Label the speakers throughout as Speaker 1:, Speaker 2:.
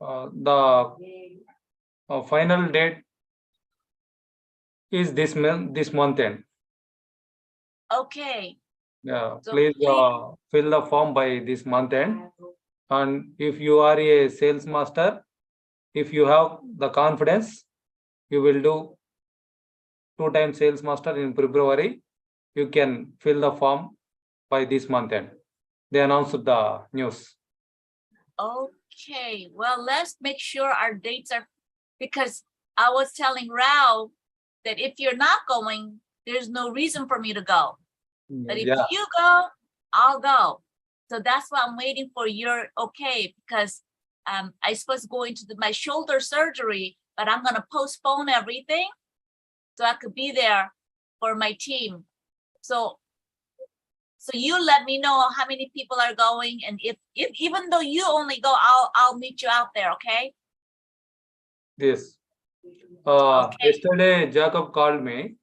Speaker 1: uh, the uh, final date is this month, this month end.
Speaker 2: Okay,
Speaker 1: Yeah,
Speaker 2: So
Speaker 1: please
Speaker 2: please-
Speaker 1: uh, fill the form by this month end. And if you are a sales master, if you have the confidence, you will do two time sales master in February. You can fill the form by this month end. They announced the news.
Speaker 2: okay. Well, let's make sure our dates are, because I was telling Rao that if you're not going, there's no reason for me to go. But if
Speaker 1: Yeah,
Speaker 2: you go, I'll go. So that's why I'm waiting for your okay because um, I supposed to go into the, my shoulder surgery, but I'm gonna postpone everything so I could be there for my team. So, so you let me know how many people are going, and if, if even though you only go, I'll I'll meet you out there. Okay?
Speaker 1: this. Uh,
Speaker 2: Okay.
Speaker 1: yesterday Jacob called me,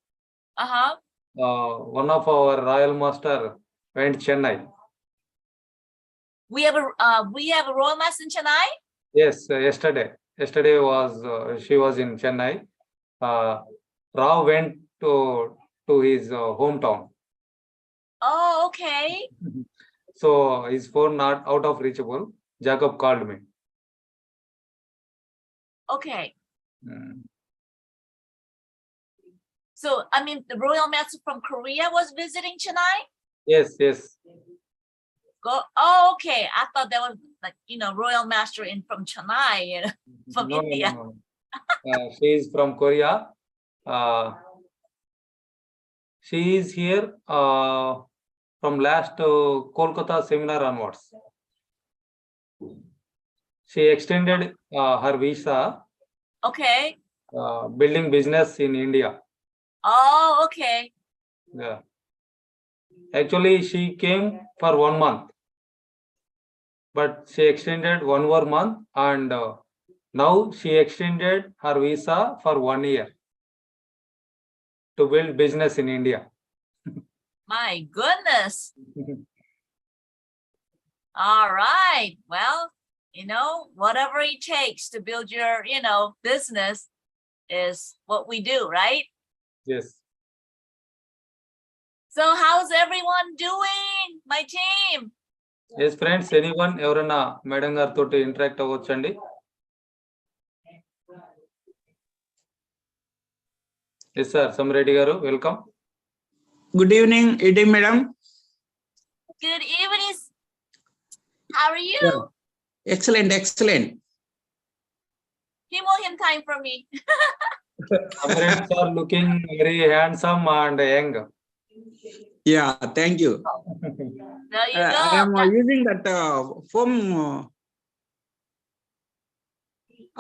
Speaker 2: Uh huh.
Speaker 1: uh, one of our royal master went Chennai.
Speaker 2: We have a uh, we have a royal mass in Chennai.
Speaker 1: Yes, uh, yesterday. Yesterday was uh, she was in Chennai. Uh, Rao went to to his uh, hometown,
Speaker 2: Oh, okay.
Speaker 1: so his phone not out of reachable. Jacob called me.
Speaker 2: Okay.
Speaker 1: Mm.
Speaker 2: So, I mean, the royal master from Korea was visiting Chennai?
Speaker 1: Yes, yes,
Speaker 2: Go, oh, okay. I thought that was like, you know, royal master in from Chennai. you know. From
Speaker 1: No, no,
Speaker 2: India.
Speaker 1: no, no. Uh, she is from Korea. Uh, she is here uh, from last uh, Kolkata seminar onwards. She extended uh, her visa,
Speaker 2: Okay.
Speaker 1: uh, building business in India.
Speaker 2: Oh, okay.
Speaker 1: Yeah. Actually, she came for one month. But she extended one more month and uh, now she extended her visa for one year to build business in India.
Speaker 2: My goodness. All right. Well, you know, whatever it takes to build your, you know, business is what we do, right?
Speaker 1: Yes.
Speaker 2: So, how's everyone doing? My team.
Speaker 1: Yes friends any one ఎవరైనా madam గారితో interact అవ్వచ్చండి yes sir Sammireddy garu welcome
Speaker 3: Good evening, ED madam.
Speaker 2: Good evening. How are you?
Speaker 3: Yeah. Excellent, excellent.
Speaker 2: Himo him time for me.
Speaker 1: Sammireddy sir looking very handsome and young
Speaker 3: Yeah, thank you.
Speaker 2: There you
Speaker 3: Uh, I am
Speaker 2: go.
Speaker 3: uh, using that uh, foam. uh,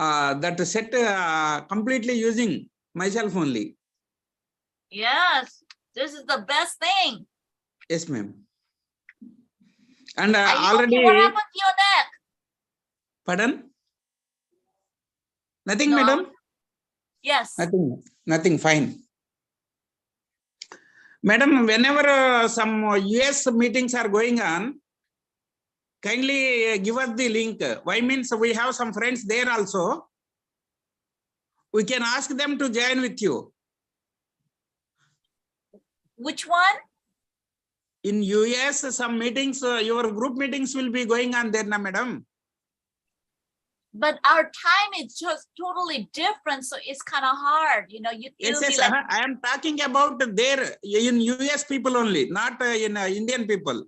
Speaker 3: Uh, that set uh, completely using myself only.
Speaker 2: Yes, this is the best thing.
Speaker 3: Yes, ma'am. And uh,
Speaker 2: Are you
Speaker 3: already,
Speaker 2: okay? What happened to your neck?
Speaker 3: pardon? Nothing,
Speaker 2: No.
Speaker 3: madam?
Speaker 2: Yes.
Speaker 3: Nothing, nothing, fine. Madam, whenever uh, some uh, US meetings are going on, kindly uh, give us the link. Why means we have some friends there also. We can ask them to join with you.
Speaker 2: Which one?
Speaker 3: In US, some meetings, uh, your group meetings will be going on there, na madam?
Speaker 2: But our time is just totally different, so it's kind of hard. You know, you it'll
Speaker 3: Yes,
Speaker 2: be
Speaker 3: yes,
Speaker 2: like,
Speaker 3: uh-huh. I am talking about there, in US people only, not uh, in uh, Indian people.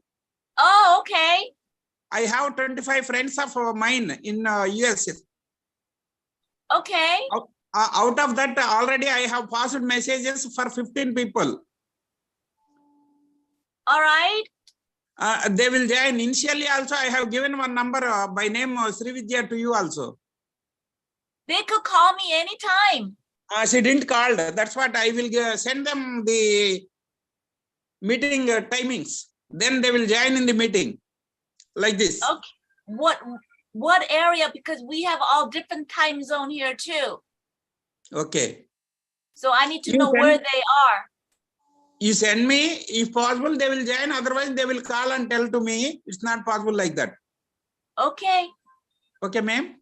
Speaker 2: oh, okay.
Speaker 3: I have twenty-five friends of uh, mine in uh, US.
Speaker 2: Okay.
Speaker 3: Uh, out of that, already I have passed messages for fifteen people.
Speaker 2: All right.
Speaker 3: Uh, they will join. Initially also, I have given one number uh, by name uh, Sri Vidya to you also.
Speaker 2: They could call me anytime.
Speaker 3: Uh, she didn't call. That's what I will uh, send them the meeting uh, timings. Then they will join in the meeting like this.
Speaker 2: Okay. What what area? Because we have all different time zone here too.
Speaker 3: Okay.
Speaker 2: So I need to
Speaker 3: You
Speaker 2: know
Speaker 3: can-
Speaker 2: where they are.
Speaker 3: You send me, if possible, they will join. Otherwise, they will call and tell to me. It's not possible like that.
Speaker 2: Okay.
Speaker 3: Okay, ma'am?